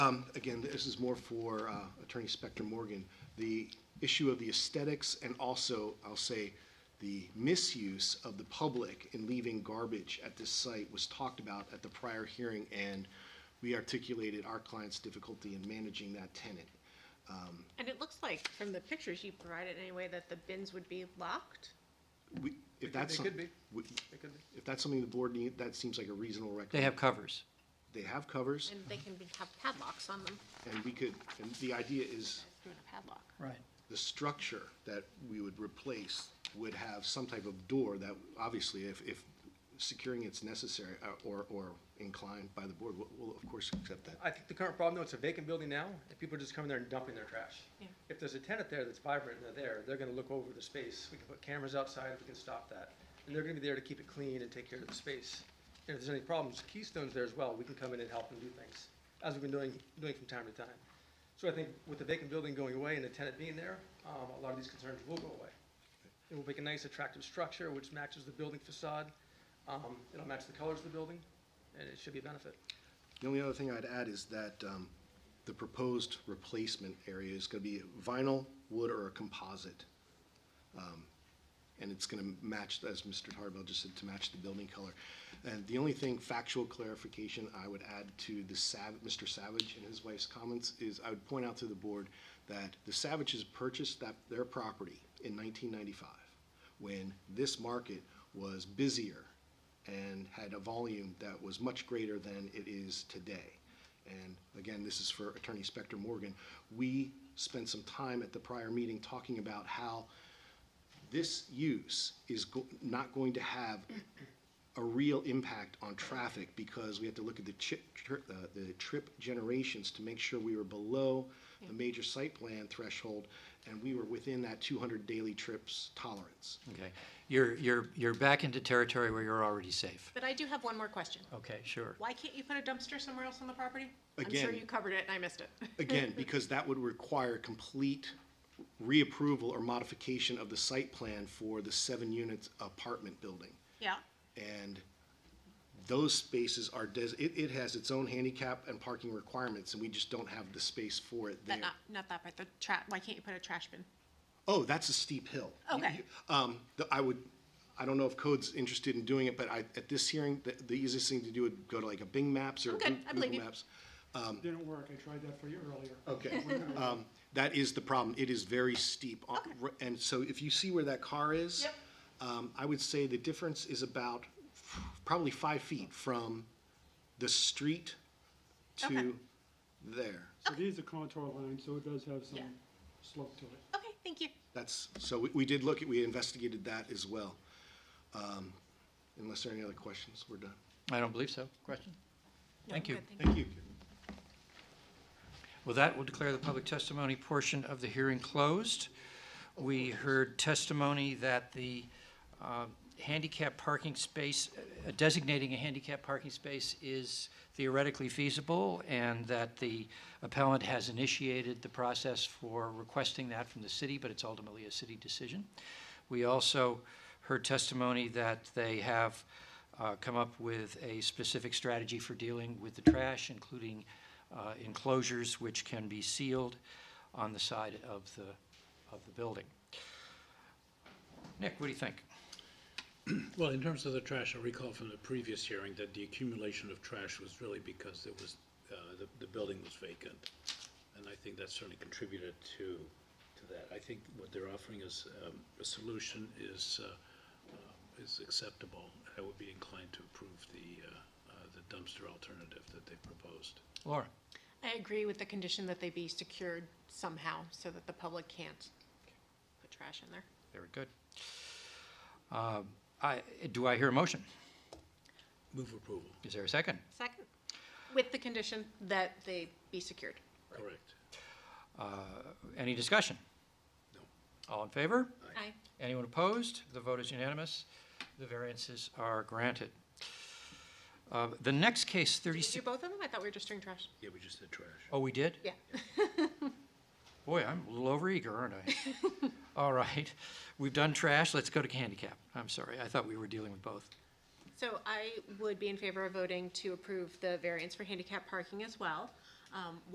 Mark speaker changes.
Speaker 1: Um, Again, this is more for uh, Attorney Spector Morgan. The issue of the aesthetics and also, I'll say, the misuse of the public in leaving garbage at this site was talked about at the prior hearing, and we articulated our client's difficulty in managing that tenant.
Speaker 2: And it looks like, from the pictures you provided anyway, that the bins would be locked?
Speaker 1: We- If that's.
Speaker 3: it
Speaker 1: some-
Speaker 3: could be.
Speaker 1: we-
Speaker 3: It could be.
Speaker 1: If that's something the board need, that seems like a reasonable recommendation.
Speaker 4: They have covers.
Speaker 1: They have covers,
Speaker 2: And they can be, have padlocks on them,
Speaker 1: and we could, and the idea is
Speaker 2: doing a padlock.
Speaker 4: Right.
Speaker 1: the structure that we would replace would have some type of door that, obviously, if, if securing it's necessary uh, or, or inclined by the board, we'll, we'll of course accept that.
Speaker 3: I think the current problem, though, it's a vacant building now, and people are just coming there and dumping their trash.
Speaker 2: Yeah.
Speaker 3: If there's a tenant there that's vibrant and they're there, they're gonna look over the space, we can put cameras outside, we can stop that. And they're gonna be there to keep it clean and take care of the space. And if there's any problems, Keystone's there as well, we can come in and help and do things, as we've been doing, doing from time to time. So I think with the vacant building going away and the tenant being there, um, a lot of these concerns will go away. It will make a nice attractive structure which matches the building facade, um, it'll match the colors of the building, and it should be a benefit.
Speaker 1: The only other thing I'd add is that um, the proposed replacement area is going to be vinyl, wood, or a composite. Um, And it's going to match, as Mr. Tarbell just said, to match the building color. And the only thing, factual clarification, I would add to the Sav, Mr. Savage and his wife's comments is I would point out to the board that the Savages purchased that, their property in 1995, when this market was busier and had a volume that was much greater than it is today. And again, this is for Attorney Spector Morgan. We spent some time at the prior meeting talking about how this use is go- not going to have a real impact on traffic because we had to look at the chip, tri- uh, the trip generations to make sure we were below the major site plan threshold, and we were within that two hundred daily trips tolerance.
Speaker 4: Okay. You're, you're, you're back into territory where you're already safe.
Speaker 2: But I do have one more question.
Speaker 4: Okay, sure.
Speaker 2: Why can't you put a dumpster somewhere else on the property? I'm sure
Speaker 1: Again-
Speaker 2: you covered it and I missed it.
Speaker 1: Again, because that would require complete reapproval or modification of the site plan for the seven-unit apartment building.
Speaker 2: Yeah,
Speaker 1: And those spaces are, des- it, it has its own handicap and parking requirements, and we just don't have the space for it there.
Speaker 2: but uh, not, not that part, the tra, why can't you put a trash bin?
Speaker 1: Oh, that's a steep hill. You-
Speaker 2: Okay.
Speaker 1: you- Um, the- I would, I don't know if Code's interested in doing it, but I, at this hearing, the, the easiest thing to do would go to like a Bing Maps or
Speaker 2: I'm good.
Speaker 1: Goo-
Speaker 2: I believe
Speaker 1: Google
Speaker 2: you.
Speaker 1: Maps.
Speaker 5: Didn't work, I tried that for you earlier.
Speaker 1: Okay, um, that is the problem, it is very steep, on- r- and so if you see where that car is.
Speaker 2: Yep.
Speaker 1: Um, I would say the difference is about f- probably five feet from the street
Speaker 2: Okay.
Speaker 1: to there.
Speaker 5: So these are contour lines, so it does have some
Speaker 2: Yeah.
Speaker 5: slope to it.
Speaker 2: Okay, thank you.
Speaker 1: That's, so we, we did look at, we investigated that as well. Um, unless there are any other questions, we're done.
Speaker 4: I don't believe so. Question?
Speaker 2: No,
Speaker 4: Thank you.
Speaker 2: good,
Speaker 1: Thank you.
Speaker 4: Well, that will declare the public testimony portion of the hearing closed. We heard testimony that the uh, handicap parking space, uh, designating a handicap parking space is theoretically feasible, and that the appellant has initiated the process for requesting that from the city, but it's ultimately a city decision. We also heard testimony that they have uh, come up with a specific strategy for dealing with the trash, including uh, enclosures which can be sealed on the side of the, of the building. Nick, what do you think?
Speaker 6: Well, in terms of the trash, I recall from the previous hearing that the accumulation of trash was really because it was, uh, the, the building was vacant. And I think that certainly contributed to, to that. I think what they're offering is, um, a solution is, uh, uh, is acceptable. I would be inclined to approve the, uh, uh, the dumpster alternative that they proposed.
Speaker 4: Laura?
Speaker 2: I agree with the condition that they be secured somehow so that the public can't put trash in there.
Speaker 4: Very good. Um, I, do I hear a motion?
Speaker 6: Move approval,
Speaker 4: Is there a second?
Speaker 2: Second, with the condition that they be secured.
Speaker 6: correct.
Speaker 4: Any discussion?
Speaker 6: No.
Speaker 4: All in favor?
Speaker 2: Aye.
Speaker 4: Anyone opposed? The vote is unanimous. The variances are granted. Uh, The next case,
Speaker 2: Did you do
Speaker 4: 36,
Speaker 2: both of them? I thought we were just doing trash.
Speaker 6: Yeah, we just did trash.
Speaker 4: oh, we did?
Speaker 2: Yeah.
Speaker 4: Boy, I'm a little overeager, aren't I? All right, we've done trash, let's go to handicap. I'm sorry, I thought we were dealing with both.
Speaker 2: So I would be in favor of voting to approve the variance for handicap parking as well. Um,